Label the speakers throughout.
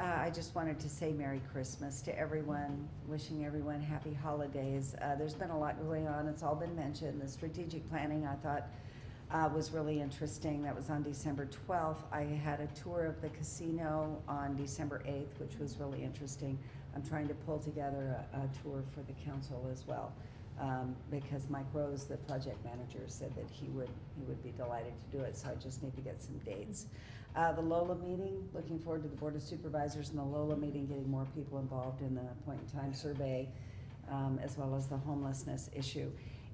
Speaker 1: Uh, just wanted to say Merry Christmas to everyone, wishing everyone happy holidays. Uh, there's been a lot going on, it's all been mentioned. The strategic planning, I thought, uh, was really interesting. That was on December twelfth. I had a tour of the casino on December eighth, which was really interesting. I'm trying to pull together a, a tour for the council as well, um, because Mike Rose, the project manager, said that he would, he would be delighted to do it, so I just need to get some dates. Uh, the Lola meeting, looking forward to the Board of Supervisors and the Lola meeting, getting more people involved in the point in time survey, um, as well as the homelessness issue.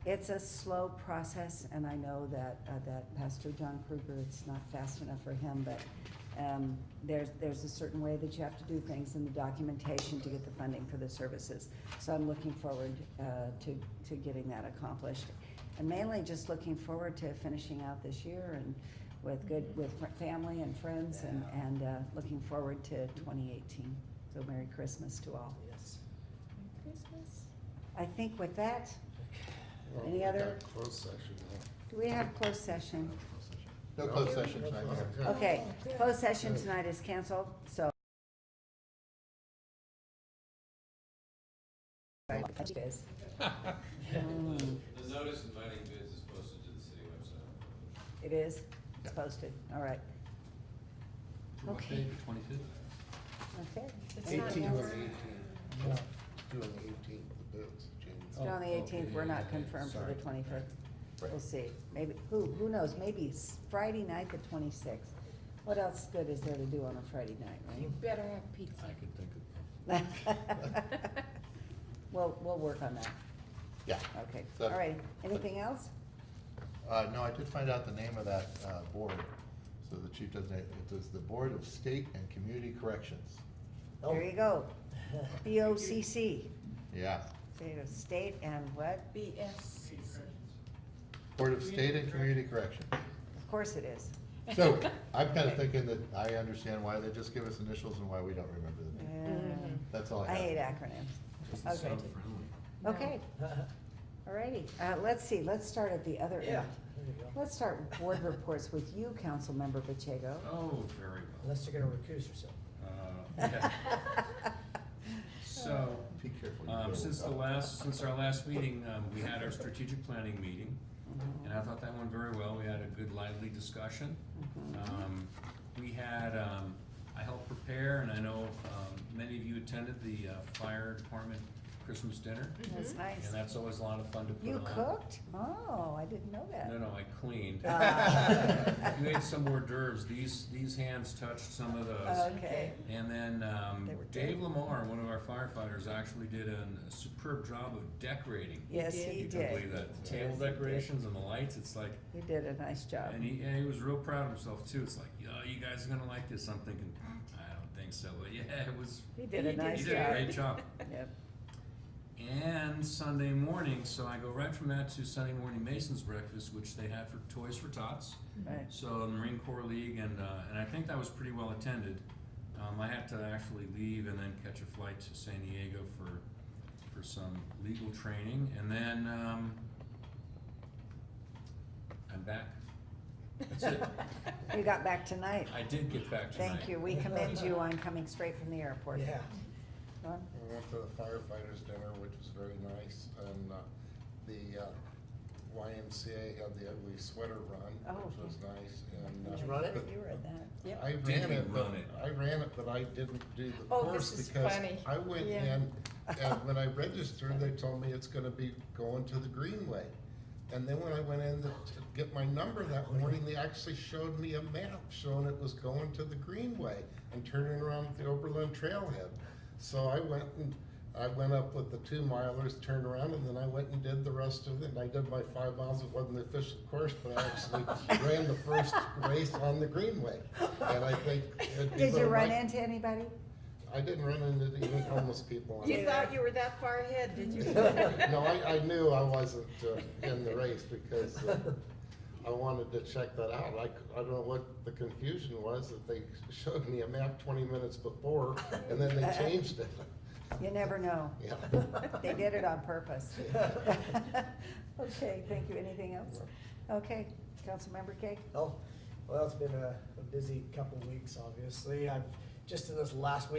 Speaker 1: It's a slow process, and I know that, uh, that Pastor John Kruger, it's not fast enough for him, but, um, there's, there's a certain way that you have to do things in the documentation to get the funding for the services. So I'm looking forward, uh, to, to getting that accomplished. And mainly just looking forward to finishing out this year and with good, with fr- family and friends and,
Speaker 2: Yeah.
Speaker 1: and, uh, looking forward to twenty eighteen. So Merry Christmas to all.
Speaker 2: Yes.
Speaker 3: Christmas.
Speaker 1: I think with that,
Speaker 4: Well,
Speaker 1: Any
Speaker 4: we
Speaker 1: other-
Speaker 4: got Closed session,
Speaker 1: do we have closed session?
Speaker 4: huh? No closed session tonight, yeah.
Speaker 1: Okay,
Speaker 3: Oh, good.
Speaker 1: closed session tonight is canceled, so. Mm,
Speaker 5: The notice inviting bids is posted to the city website.
Speaker 1: It is, it's posted, all right. Okay,
Speaker 6: Twenty-fifth?
Speaker 1: okay.
Speaker 3: It's not
Speaker 4: Eighteen was
Speaker 3: over.
Speaker 4: eighteen. No, doing the eighteen, the bids,
Speaker 1: It's
Speaker 4: James.
Speaker 1: on the
Speaker 6: Oh,
Speaker 1: eighteenth, we're
Speaker 6: okay,
Speaker 1: not
Speaker 6: okay,
Speaker 1: confirmed for the
Speaker 6: sorry.
Speaker 1: twenty-fifth.
Speaker 4: Right.
Speaker 1: We'll see, maybe, who, who knows, maybe it's Friday night, the twenty-sixth. What else good is there to do on a Friday
Speaker 3: You
Speaker 1: night,
Speaker 3: better have pizza.
Speaker 6: I could think of.
Speaker 1: right? We'll, we'll work on that,
Speaker 4: Yeah,
Speaker 1: okay,
Speaker 4: So-
Speaker 1: all right, anything else?
Speaker 4: uh, no, I did find out the name of that, uh, board, so the chief doesn't, it is the Board of State and Community Corrections,
Speaker 1: There you go, B O C C,
Speaker 4: yeah.
Speaker 1: state and what?
Speaker 3: BSCC.
Speaker 4: Board of State and Community Corrections.
Speaker 1: Of course it is,
Speaker 4: So, I'm kinda thinking that I understand why they just give us initials and why we don't remember the
Speaker 1: Uh,
Speaker 4: name,
Speaker 6: Mm-hmm.
Speaker 4: that's all I
Speaker 1: I
Speaker 4: have.
Speaker 1: hate acronyms, okay,
Speaker 3: No.
Speaker 1: okay, all righty, uh, let's see, let's start at the other
Speaker 2: Yeah,
Speaker 1: end.
Speaker 2: there you go.
Speaker 1: Let's start with board reports with you, Councilmember Pacheco.
Speaker 6: Oh, very well.
Speaker 2: Unless you're gonna recuse yourself.
Speaker 6: Uh, okay. So,
Speaker 4: Be careful. you
Speaker 6: um,
Speaker 4: go.
Speaker 6: since the last, since our last meeting, um, we had our strategic planning meeting, and I thought that went very well. We had a good lively discussion. Um, we had, um, I helped prepare, and I know, um, many of you attended the, uh, fire department Christmas dinner,
Speaker 1: That's nice.
Speaker 6: and that's always a lot of fun to put on.
Speaker 1: You cooked? Oh, I didn't know that.
Speaker 6: No, no, I cleaned.
Speaker 1: Ah.
Speaker 6: You ate some hors d'oeuvres. These, these hands touched some of
Speaker 1: Uh,
Speaker 6: those.
Speaker 1: Okay,
Speaker 6: And then um,
Speaker 1: They were
Speaker 6: Dave
Speaker 1: dead.
Speaker 6: Lamar, one of our firefighters, actually did an- a superb job of decorating.
Speaker 1: yes,
Speaker 3: did.
Speaker 1: he
Speaker 6: You can believe
Speaker 1: did,
Speaker 6: that. The table
Speaker 1: Yes, he did.
Speaker 6: decorations and the lights, it's like,
Speaker 1: he did a nice job.
Speaker 6: and he, and he was real proud of himself too. It's like, yeah, you guys are gonna like this. I'm thinking, I don't think so, but yeah, it was,
Speaker 1: He did a
Speaker 3: He did.
Speaker 1: nice
Speaker 6: he did a
Speaker 1: job.
Speaker 6: great job.
Speaker 1: Yep.
Speaker 6: And Sunday morning, so I go right from that to Sunday morning Mason's breakfast, which they had for Toys for Tots.
Speaker 1: Right.
Speaker 6: So the Marine Corps League, and, uh, and I think that was pretty well attended. Um, I had to actually leave and then catch a flight to San Diego for, for some legal training, and then, um, I'm back. That's it.
Speaker 1: You got back tonight.
Speaker 6: I did get back tonight.
Speaker 1: Thank you. We commend you on coming straight from the airport.
Speaker 2: Yeah.
Speaker 1: Norm?
Speaker 7: We went to the firefighters dinner, which was very nice, and uh, the uh, YMCA had the ugly sweater run,
Speaker 1: Oh,
Speaker 7: which was nice, and. uh,
Speaker 2: Did you run it?
Speaker 7: but
Speaker 1: You were at that.
Speaker 3: Yep.
Speaker 7: I
Speaker 6: Did
Speaker 7: ran
Speaker 6: you
Speaker 7: it, but,
Speaker 6: run it?
Speaker 7: I ran it, but I didn't do the
Speaker 3: Oh,
Speaker 7: course
Speaker 3: this is
Speaker 7: because
Speaker 3: funny.
Speaker 7: I went
Speaker 3: Yeah.
Speaker 7: in, and when I registered, they told me it's gonna be going to the Greenway. And then when I went in to to get my number that morning, they actually showed me a map showing it was going to the Greenway and turning around at the Oberlin Trailhead. So I went and, I went up with the two milers, turned around, and then I went and did the rest of it, and I did my five miles, it wasn't the official course, but I actually ran the first race on the Greenway. And I think. it'd be
Speaker 1: Did you
Speaker 7: little
Speaker 1: run
Speaker 7: Mike-
Speaker 1: into anybody?
Speaker 7: I didn't run into even homeless people. on
Speaker 3: You
Speaker 7: it.
Speaker 3: thought you were that far ahead, did you?
Speaker 7: No, I, I knew I wasn't uh, in the race because uh, I wanted to check that out. I, c- I don't know what the confusion was, that they showed me a map twenty minutes before and then they changed it.
Speaker 1: You never know.
Speaker 7: Yeah.
Speaker 1: They did it on purpose. Okay, thank you. Anything else? Okay, Councilmember Kay?
Speaker 2: Oh, well, it's been a, a busy couple of weeks, obviously. I've, just in this last week,